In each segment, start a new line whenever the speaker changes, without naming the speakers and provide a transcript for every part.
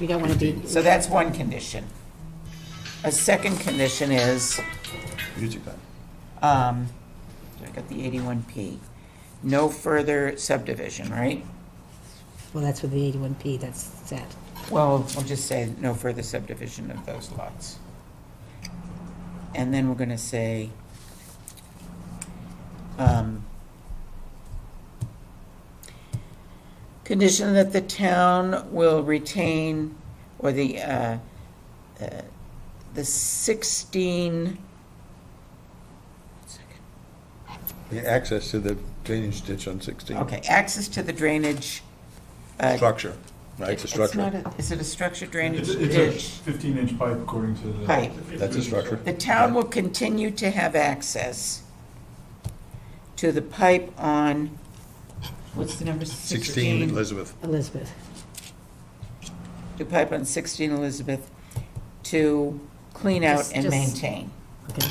We don't want to be,
So that's one condition. A second condition is,
Music time.
um, I got the eighty-one P, no further subdivision, right?
well, that's with the 81P, that's sad.
Well, we'll just say no further subdivision of those lots. And then we're gonna say, um, condition that the town will retain, or the, uh, uh, the sixteen,
The access to the drainage ditch on 16.
okay, access to the drainage. uh,
Structure, right, it's a
it's not
structure.
a- Is it a structure drainage
It's
ditch?
it's a 15-inch pipe according to the.
Pipe.
That's a structure.
The town will continue to have access to the pipe on, what's the number,
16
16?
Elizabeth.
Elizabeth,
To pipe on 16 Elizabeth to clean out
Just-
and
just-
maintain,
okay,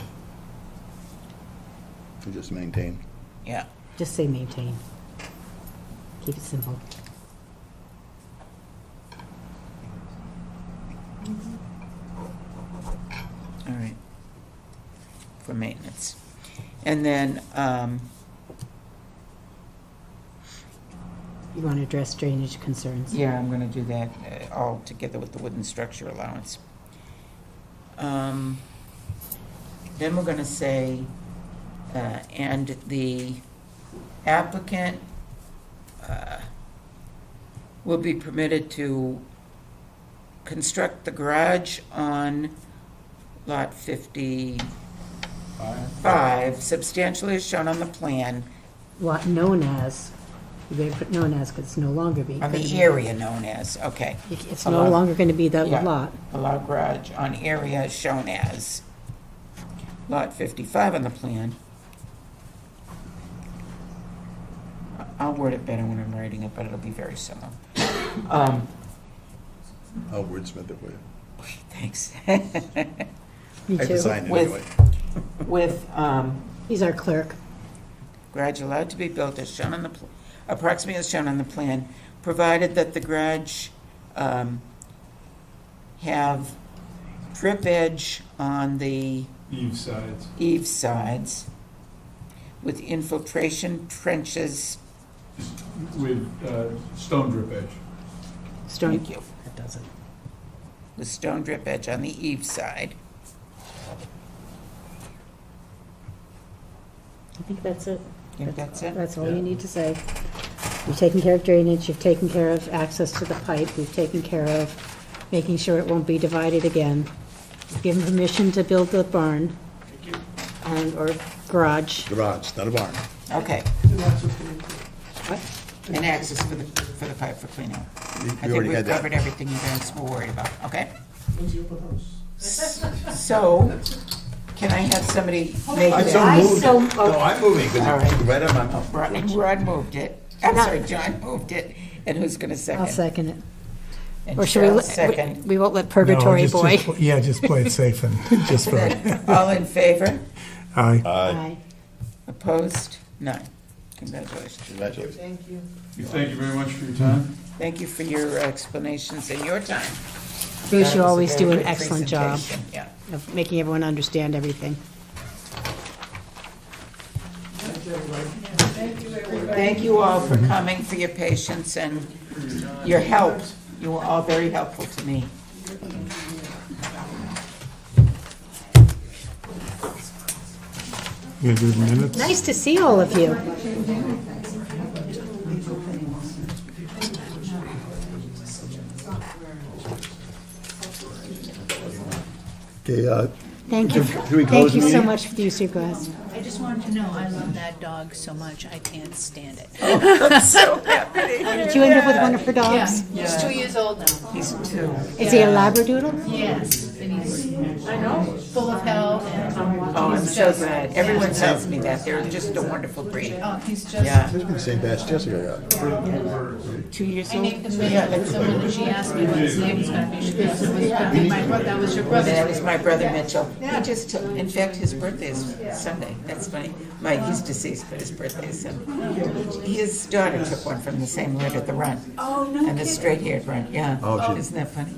You Just maintain.
yeah.
just say maintain. Keep it simple.
All right. For maintenance. And then, um,
You want to address drainage concerns.
yeah, I'm gonna do that uh, all together with the wooden structure allowance. Um, Then we're gonna say, uh, and the applicant uh, will be permitted to construct the garage on Lot 55,
Pipe.
substantially as shown on the plan,
What, known as, you better put known as, because it's no longer be.
on the area known as, okay.
It's no longer going to be that
Yeah.
lot.
a lot garage on area shown as Lot 55 on the plan. I- I'll word it better when I'm writing it, but it'll be very similar. Um,
I'll wordsmith it for you.
Thanks.
Me
I
too.
designed it
With-
anyway.
With um,
He's our clerk.
garage allowed to be built as shown on the, pl- approximately as shown on the plan, provided that the garage um, have drip edge on the
Eve sides.
eave sides with infiltration trenches.
with uh, stone drip edge.
Stone,
Thank you.
that doesn't.
With stone drip edge on the eave side.
I think that's it.
Think that's it?
That's all you need to say. You've taken care of drainage, you've taken care of access to the pipe, you've taken care of making sure it won't be divided again. You've given permission to build the barn. And, or garage.
Garage, not a barn.
Okay. What? And access for the, for the pipe for cleaning.
You-
I
You
think
already
we've
had
covered
that.
everything you guys were worried about, okay? So, can I have somebody make
I
that?
so
I
moved.
so-
it. No, I'm moving,
All
because
right.
you right on my mouth.
Rod Rod moved it. I'm sorry, John moved it. And who's going to second?
I'll second it.
And
Or should we,
Cheryl
let- we-
second.
we won't let
No,
purgatory
just-
boy.
just pl- Yeah, just play it safe and just for, uh,
All in favor?
aye.
Aye.
Opposed? None. Congratulations.
Congratulations.
We Thank you very much for your time.
Thank you for your explanations and your time.
Bruce,
That was
you
a
always
very
do an
good
excellent job
presentation. Yeah.
of making everyone understand everything.
Thank you all for coming, for your patience and your help. You were all very helpful to me.
You do the minutes?
Nice to see all of you.
Okay, uh,
Thank you.
Can we close
Thank you
the
so
meeting?
much for the use of your glass.
I just wanted to know, I love that dog so much, I can't stand it.
Did you end up with one of her dogs?
He's two years old now.
These two.
Is he a labradoodle?
Yes. and he's. I know. Full of health and.
Oh, I'm
he's
so
just-
glad. Everyone tells me that. They're just a wonderful breed.
Oh, he's just.
Yeah.
This is the same batch Jessica got.
Two years
I
old?
named him Mitchell, so when she asked me what his name was gonna be, she goes, it was gonna be my brother, that was your brother.
That is my brother Mitchell. He just, took- in fact, his birthday is Sunday. That's funny. My, he's deceased, but his birthday is Sunday. His daughter took one from the same litter, the runt. Oh, no And the straight-haired runt, yeah.
Oh, gee.
Isn't that funny?